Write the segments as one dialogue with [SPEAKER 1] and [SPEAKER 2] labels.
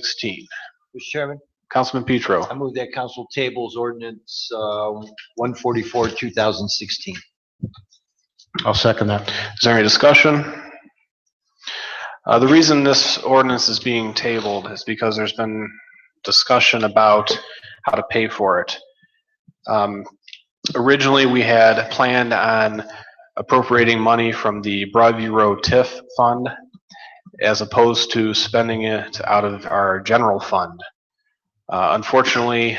[SPEAKER 1] sixteen.
[SPEAKER 2] Mr. Chairman,
[SPEAKER 1] Councilman
[SPEAKER 2] I
[SPEAKER 1] Petro,
[SPEAKER 2] move that council tables ordinance uh, one forty-four, two thousand sixteen.
[SPEAKER 3] I'll second that.
[SPEAKER 1] is there any discussion? Uh, the reason this ordinance is being tabled is because there's been discussion about how to pay for it. Um, originally, we had planned on appropriating money from the Broadview Road TIF fund as opposed to spending it out of our general fund. Uh, unfortunately,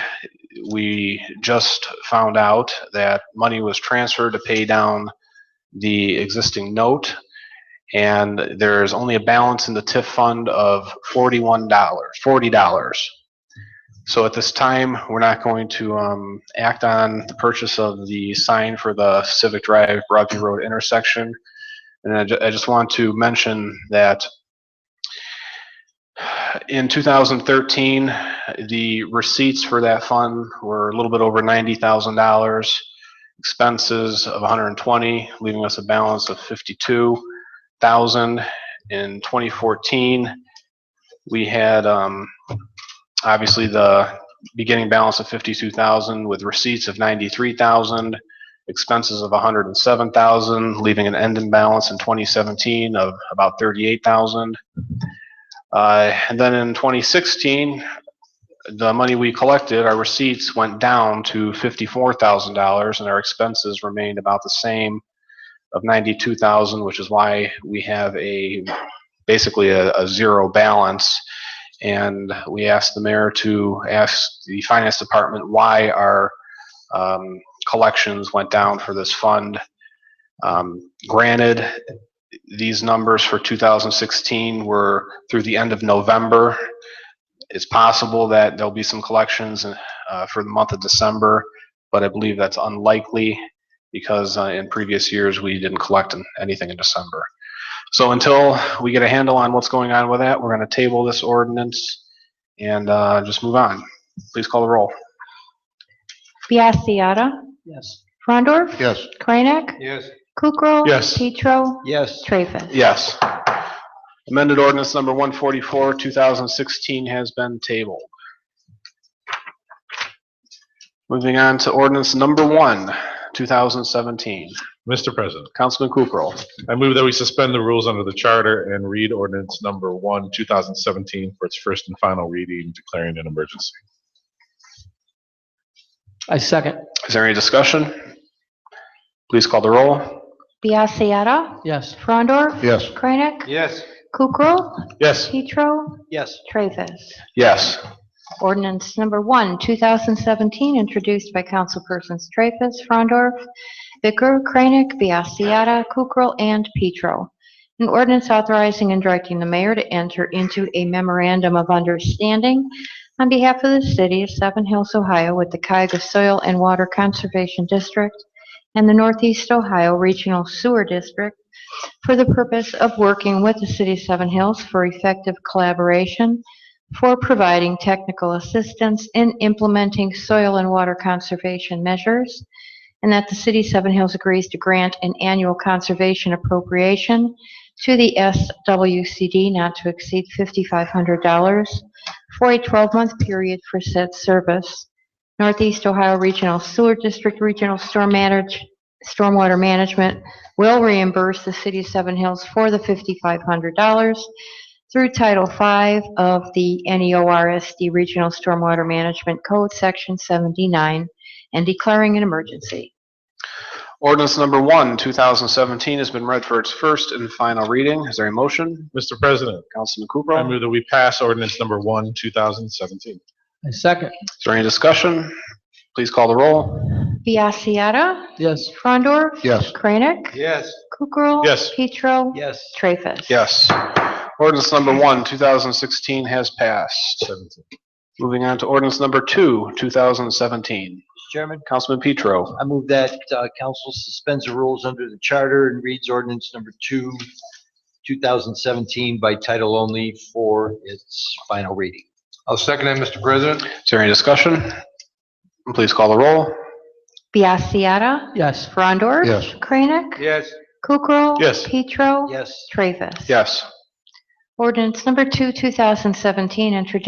[SPEAKER 1] we just found out that money was transferred to pay down the existing note. And there is only a balance in the TIF fund of forty-one dollars, forty dollars. So at this time, we're not going to um, act on the purchase of the sign for the Civic Drive Broadview Road intersection. And I ju- I just want to mention that in 2013, the receipts for that fund were a little bit over $90,000 expenses of 120, leaving us a balance of 52,000. In 2014, we had, um, obviously the beginning balance of 52,000 with receipts of 93,000, expenses of 107,000, leaving an end in balance in 2017 of about 38,000. Uh, and then in 2016, the money we collected, our receipts went down to fifty-four thousand dollars and our expenses remained about the same of ninety-two thousand, which is why we have a, basically a, a zero balance. And we asked the mayor to ask the finance department why our, um, collections went down for this fund. Um, granted, these numbers for two thousand sixteen were through the end of November it's possible that there'll be some collections uh, for the month of December, but I believe that's unlikely because uh, in previous years, we didn't collect in- anything in December. So until we get a handle on what's going on with that, we're going to table this ordinance and uh, just move on. Please call the roll.
[SPEAKER 4] Biassiata.
[SPEAKER 2] Yes.
[SPEAKER 4] Frondor.
[SPEAKER 3] Yes.
[SPEAKER 4] Kranek.
[SPEAKER 2] Yes.
[SPEAKER 4] Kukrow.
[SPEAKER 1] Yes.
[SPEAKER 4] Petro.
[SPEAKER 2] Yes.
[SPEAKER 4] Traffus.
[SPEAKER 1] Yes. Amended ordinance number 144, 2016 has been tabled. Moving on to ordinance number one, 2017.
[SPEAKER 3] Mr. President,
[SPEAKER 1] Councilman Kukrow.
[SPEAKER 3] I move that we suspend the rules under the charter and read ordinance number one, 2017 for its first and final reading, declaring an emergency.
[SPEAKER 5] I second,
[SPEAKER 1] Is there any discussion? Please call the roll.
[SPEAKER 4] Biassiata.
[SPEAKER 5] yes.
[SPEAKER 4] Frondor.
[SPEAKER 3] Yes.
[SPEAKER 4] Kranek.
[SPEAKER 2] Yes.
[SPEAKER 4] Kukrow.
[SPEAKER 3] Yes.
[SPEAKER 4] Petro.
[SPEAKER 2] Yes.
[SPEAKER 4] Traffus.
[SPEAKER 1] Yes.
[SPEAKER 4] Ordinance number one, 2017, introduced by councilpersons Traffus, Frondor, Bicker, Kranek, Biassiata, Kukrow, and Petro. An ordinance authorizing and directing the mayor to enter into a memorandum of understanding on behalf of the city of Seven Hills, Ohio, with the Cuyahoga Soil and Water Conservation District and the Northeast Ohio Regional Sewer District for the purpose of working with the city of Seven Hills for effective collaboration for providing technical assistance in implementing soil and water conservation measures, and that the city of Seven Hills agrees to grant an annual conservation appropriation to the SWCD not to exceed $5,500 for a 12-month period for said service. Northeast Ohio Regional Sewer District Regional Storm Manage- Stormwater Management will reimburse the city of Seven Hills for the $5,500 through Title V of the E NEORSD Regional Stormwater Management Code, Section 79, and declaring an emergency.
[SPEAKER 1] Ordinance number one, 2017 has been read for its first and final reading. Is there a motion?
[SPEAKER 3] Mr. President,
[SPEAKER 1] Councilman
[SPEAKER 3] I
[SPEAKER 1] Kukrow.
[SPEAKER 3] move that we pass ordinance number one, 2017.
[SPEAKER 5] I second,
[SPEAKER 1] Is there any discussion? Please call the roll.
[SPEAKER 4] Biassiata.
[SPEAKER 5] yes.
[SPEAKER 4] Frondor.
[SPEAKER 3] Yes.
[SPEAKER 4] Kranek.
[SPEAKER 2] Yes.
[SPEAKER 4] Kukrow.
[SPEAKER 3] Yes.
[SPEAKER 4] Petro.
[SPEAKER 2] Yes.
[SPEAKER 4] Traffus.
[SPEAKER 1] Yes. Ordinance number one, 2016 has passed.
[SPEAKER 3] 17.
[SPEAKER 1] Moving on to ordinance number two, 2017.
[SPEAKER 2] Mr. Chairman,
[SPEAKER 1] Councilman Petro.
[SPEAKER 2] I move that uh, council suspends the rules under the charter and reads ordinance number two, two thousand seventeen by title only for its final reading.
[SPEAKER 6] I'll second that, Mr. President.
[SPEAKER 1] Is there any discussion? Please call the roll.
[SPEAKER 4] Biassiata.
[SPEAKER 5] Yes,
[SPEAKER 4] Frondor.
[SPEAKER 3] Yes.
[SPEAKER 4] Kranek.
[SPEAKER 6] Yes.
[SPEAKER 4] Kukrow.
[SPEAKER 3] Yes.
[SPEAKER 4] Petro.
[SPEAKER 2] Yes.
[SPEAKER 4] Traffus.
[SPEAKER 1] Yes.
[SPEAKER 4] Ordinance number 2, 2017, introduced